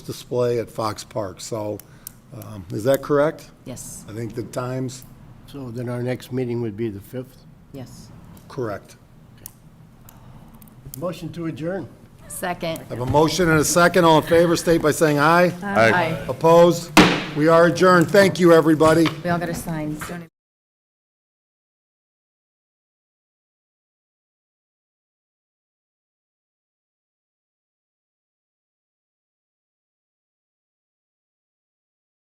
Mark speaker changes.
Speaker 1: display at Fox Park. So, um, is that correct?
Speaker 2: Yes,
Speaker 1: I think the time's
Speaker 3: So then our next meeting would be the 5th.
Speaker 2: yes.
Speaker 1: correct.
Speaker 3: Motion to adjourn.
Speaker 2: Second.
Speaker 1: I have a motion and a second. All in favor, state by saying aye.
Speaker 2: Aye.
Speaker 1: Opposed? We are adjourned. Thank you, everybody.
Speaker 2: We all got to sign. Don't even-